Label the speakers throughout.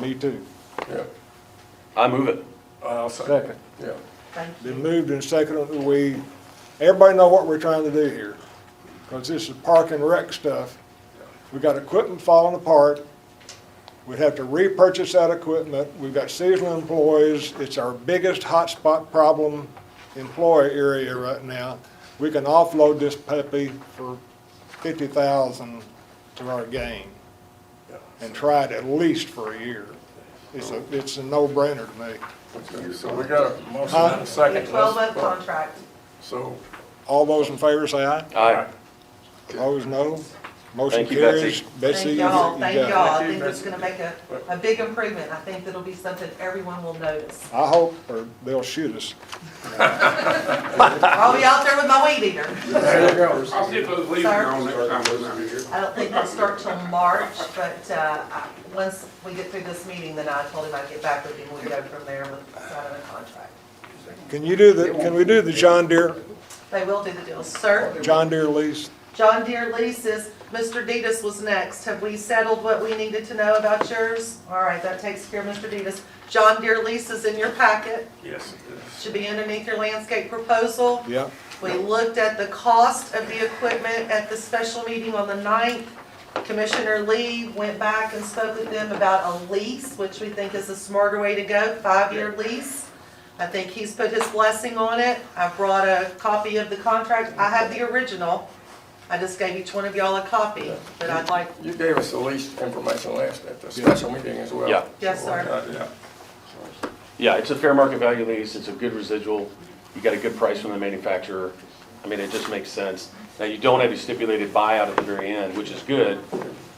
Speaker 1: me too.
Speaker 2: Yeah,
Speaker 3: I move it.
Speaker 2: I'll second,
Speaker 1: Second.
Speaker 2: yeah.
Speaker 4: Thank you.
Speaker 1: Been moved and seconded, that we, everybody know what we're trying to do here. Because this is park and rec stuff. We got equipment falling apart. We'd have to repurchase that equipment. We've got seasonal employees. It's our biggest hotspot problem employee area right now. We can offload this puppy for fifty thousand to our game and try it at least for a year. It's a, it's a no-brainer to me.
Speaker 2: Okay, So we got a motion and a second.
Speaker 4: The twelve
Speaker 2: Let's
Speaker 4: month
Speaker 2: vote.
Speaker 4: contract,
Speaker 2: So,
Speaker 1: All those in favor say aye.
Speaker 3: Aye.
Speaker 1: Opposed, no. Motion
Speaker 3: Thank you, Betsy.
Speaker 1: carries. Betsy,
Speaker 4: thank
Speaker 1: you
Speaker 4: y'all,
Speaker 1: got
Speaker 4: thank
Speaker 1: it.
Speaker 4: y'all, I
Speaker 2: Thank you,
Speaker 4: think it's
Speaker 2: Betsy.
Speaker 4: gonna make a, a big improvement, I think that'll be something everyone will notice.
Speaker 1: I hope, or they'll shoot us.
Speaker 4: I'll be out there with my weed eater,
Speaker 2: there you go.
Speaker 5: I'll see if those leaves are on next time we're down here.
Speaker 4: I don't think they'll start till March, but, uh, I- once we get through this meeting, then I told him I'd get back with him, we'll go from there with signing the contract.
Speaker 1: Can you do the, can we do the John Deere,
Speaker 4: They will do the deal, sir.
Speaker 1: John Deere lease?
Speaker 4: John Deere leases, Mr. Detus was next. Have we settled what we needed to know about yours? All right, that takes care of Mr. Detus. John Deere leases in your packet,
Speaker 2: Yes.
Speaker 4: should be underneath your landscape proposal.
Speaker 1: Yeah.
Speaker 4: We looked at the cost of the equipment at the special meeting on the 9th. Commissioner Lee went back and spoke with them about a lease, which we think is a smarter way to go, five-year lease. I think he's put his blessing on it. I brought a copy of the contract. I have the original. I just gave each one of y'all a copy, but I'd like,
Speaker 2: You gave us the least information last at the special meeting as well. uh,
Speaker 3: Yeah.
Speaker 4: Yes, sir.
Speaker 2: Yeah.
Speaker 3: Yeah, it's a fair market value lease, it's a good residual, you got a good price from the manufacturer. I mean, it just makes sense. Now, you don't have a stipulated buyout at the very end, which is good.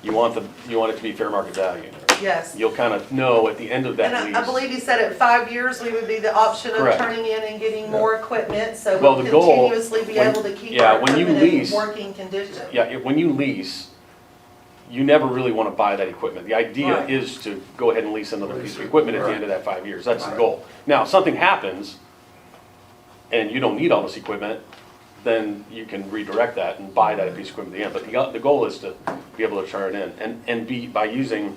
Speaker 3: You want the, you want it to be fair market value.
Speaker 4: yes.
Speaker 3: You'll kind of know at the end of
Speaker 4: And
Speaker 3: that lease.
Speaker 4: I- I believe he said at five years, we would be the option of
Speaker 3: Correct.
Speaker 4: turning in and getting more equipment, so
Speaker 3: Well,
Speaker 4: we'll
Speaker 3: the goal-
Speaker 4: continuously be
Speaker 3: when-
Speaker 4: able to keep
Speaker 3: yeah,
Speaker 4: our
Speaker 3: when you
Speaker 4: equipment in
Speaker 3: lease-
Speaker 4: working condition.
Speaker 3: Yeah, it- when you lease, you never really want to buy that equipment. The idea
Speaker 4: Right.
Speaker 3: is to go ahead and lease another piece of equipment at the end of that five years, that's the goal. Now, if something happens, and you don't need all this equipment, then you can redirect that and buy that piece of equipment at the end. But the, the goal is to be able to turn it in, and, and be, by using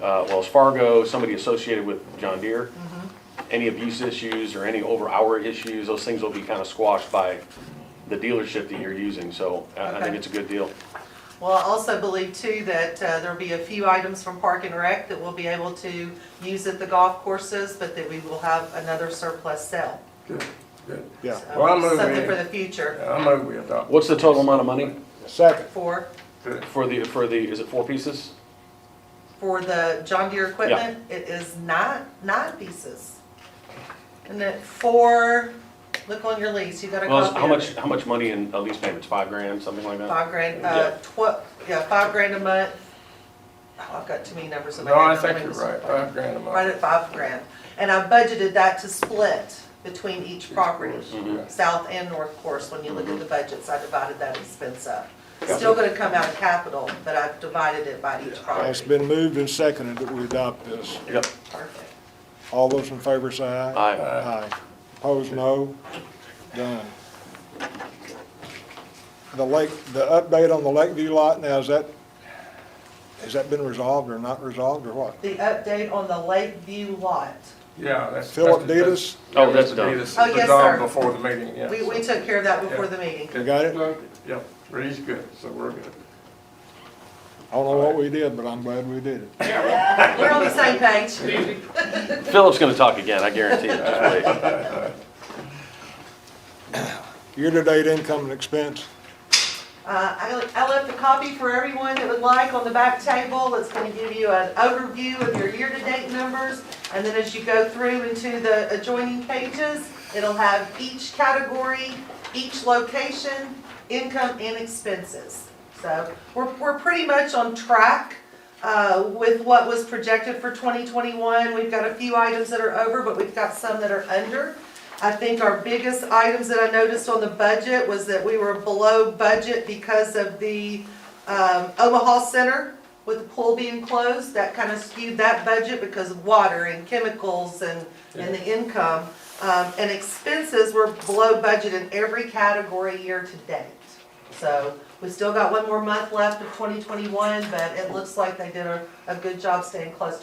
Speaker 3: uh, Wells Fargo, somebody associated with John Deere,
Speaker 4: Mm-hmm.
Speaker 3: any abuse issues or any over-hour issues, those things will be kind of squashed by the dealership that you're using, so I I
Speaker 4: Okay.
Speaker 3: think it's a good deal.
Speaker 4: Well, I also believe too that uh, there'll be a few items from Park and Rec that we'll be able to use at the golf courses, but that we will have another surplus sale.
Speaker 2: Good, good.
Speaker 1: Yeah.
Speaker 4: So,
Speaker 2: Well, I move
Speaker 4: Something
Speaker 2: we-
Speaker 4: for the future.
Speaker 2: I move we adopt.
Speaker 3: What's the total amount of money
Speaker 1: Second,
Speaker 4: For,
Speaker 2: Good.
Speaker 3: for the, for the, is it four pieces?
Speaker 4: for the John Deere equipment, it is nine, nine pieces. And then four, look on your lease, you got a copy
Speaker 3: Well,
Speaker 4: of it.
Speaker 3: how much, how much money in a lease payments, five grand, something like that?
Speaker 4: Five grand,
Speaker 3: Yeah.
Speaker 4: uh, tw- yeah, five grand a month. Oh, I've got too many numbers in my
Speaker 2: No,
Speaker 4: head.
Speaker 2: I
Speaker 4: Let
Speaker 2: think
Speaker 4: me
Speaker 2: you're
Speaker 4: just-
Speaker 2: right, five grand a month.
Speaker 4: right at five grand. And I budgeted that to split between each property,
Speaker 3: Mm-hmm.
Speaker 2: Mhm.
Speaker 4: south and north course, when you look at the budgets, I divided that expense up.
Speaker 2: Yeah.
Speaker 4: Still gonna come out of capital, but I've divided it by each
Speaker 1: it's
Speaker 4: property.
Speaker 1: been moved and seconded that we adopt this.
Speaker 3: Yep,
Speaker 4: Perfect.
Speaker 1: All those in favor say aye.
Speaker 3: aye.
Speaker 1: Aye. Opposed, no. Done. The lake, the update on the Lakeview lot now, is that, has that been resolved or not resolved or what?
Speaker 4: The update on the Lakeview lot,
Speaker 2: Yeah, that's.
Speaker 1: Philip
Speaker 2: that's-
Speaker 1: Detus,
Speaker 3: Oh, that's done.
Speaker 2: Detus
Speaker 4: Oh, yes,
Speaker 2: dissolved
Speaker 4: sir.
Speaker 2: Before the meeting, yeah.
Speaker 4: we,
Speaker 2: so-
Speaker 4: we took care of that before
Speaker 2: Yeah.
Speaker 4: the meeting.
Speaker 1: you got it? I
Speaker 2: Yep, Reed's good, so we're good.
Speaker 1: don't know what we did, but I'm glad we did it.
Speaker 4: We're on the same page.
Speaker 3: Philip's gonna talk again, I guarantee it, just wait.
Speaker 1: Year-to-date income and expense,
Speaker 4: Uh, I, I left a copy for everyone that would like on the back table. It's gonna give you an overview of your year-to-date numbers. And then as you go through into the adjoining pages, it'll have each category, each location, income and expenses. So we're, we're pretty much on track, uh, with what was projected for twenty twenty-one. We've got a few items that are over, but we've got some that are under. I think our biggest items that I noticed on the budget was that we were below budget because of the um, Omaha Center with the pool being closed. That kind of skewed that budget because of water and chemicals and, and the income. Um, And expenses were below budget in every category year to date. So we still got one more month left of 2021, but it looks like they did a, a good job staying close to